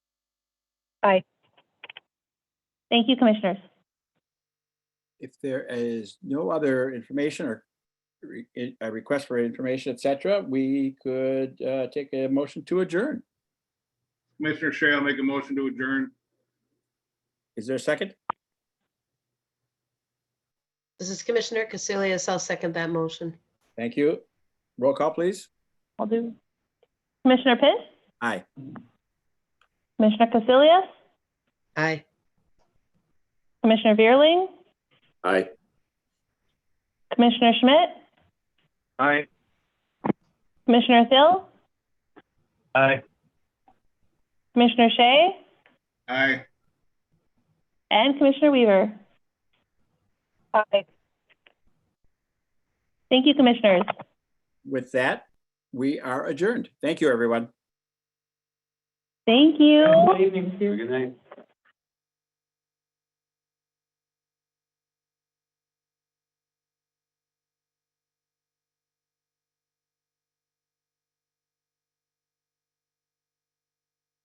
Aye. Thank you, Commissioners. If there is no other information or re- i- a request for information, et cetera, we could uh, take a motion to adjourn. Commissioner Shea, I'll make a motion to adjourn. Is there a second? This is Commissioner Casilius. I'll second that motion. Thank you. Roll call, please. I'll do. Commissioner Pitt? Aye. Commissioner Casilius? Aye. Commissioner Vierling? Aye. Commissioner Schmidt? Aye. Commissioner Thill? Aye. Commissioner Shea? Aye. And Commissioner Weaver? Aye. Thank you, Commissioners. With that, we are adjourned. Thank you, everyone. Thank you. evening. Good night.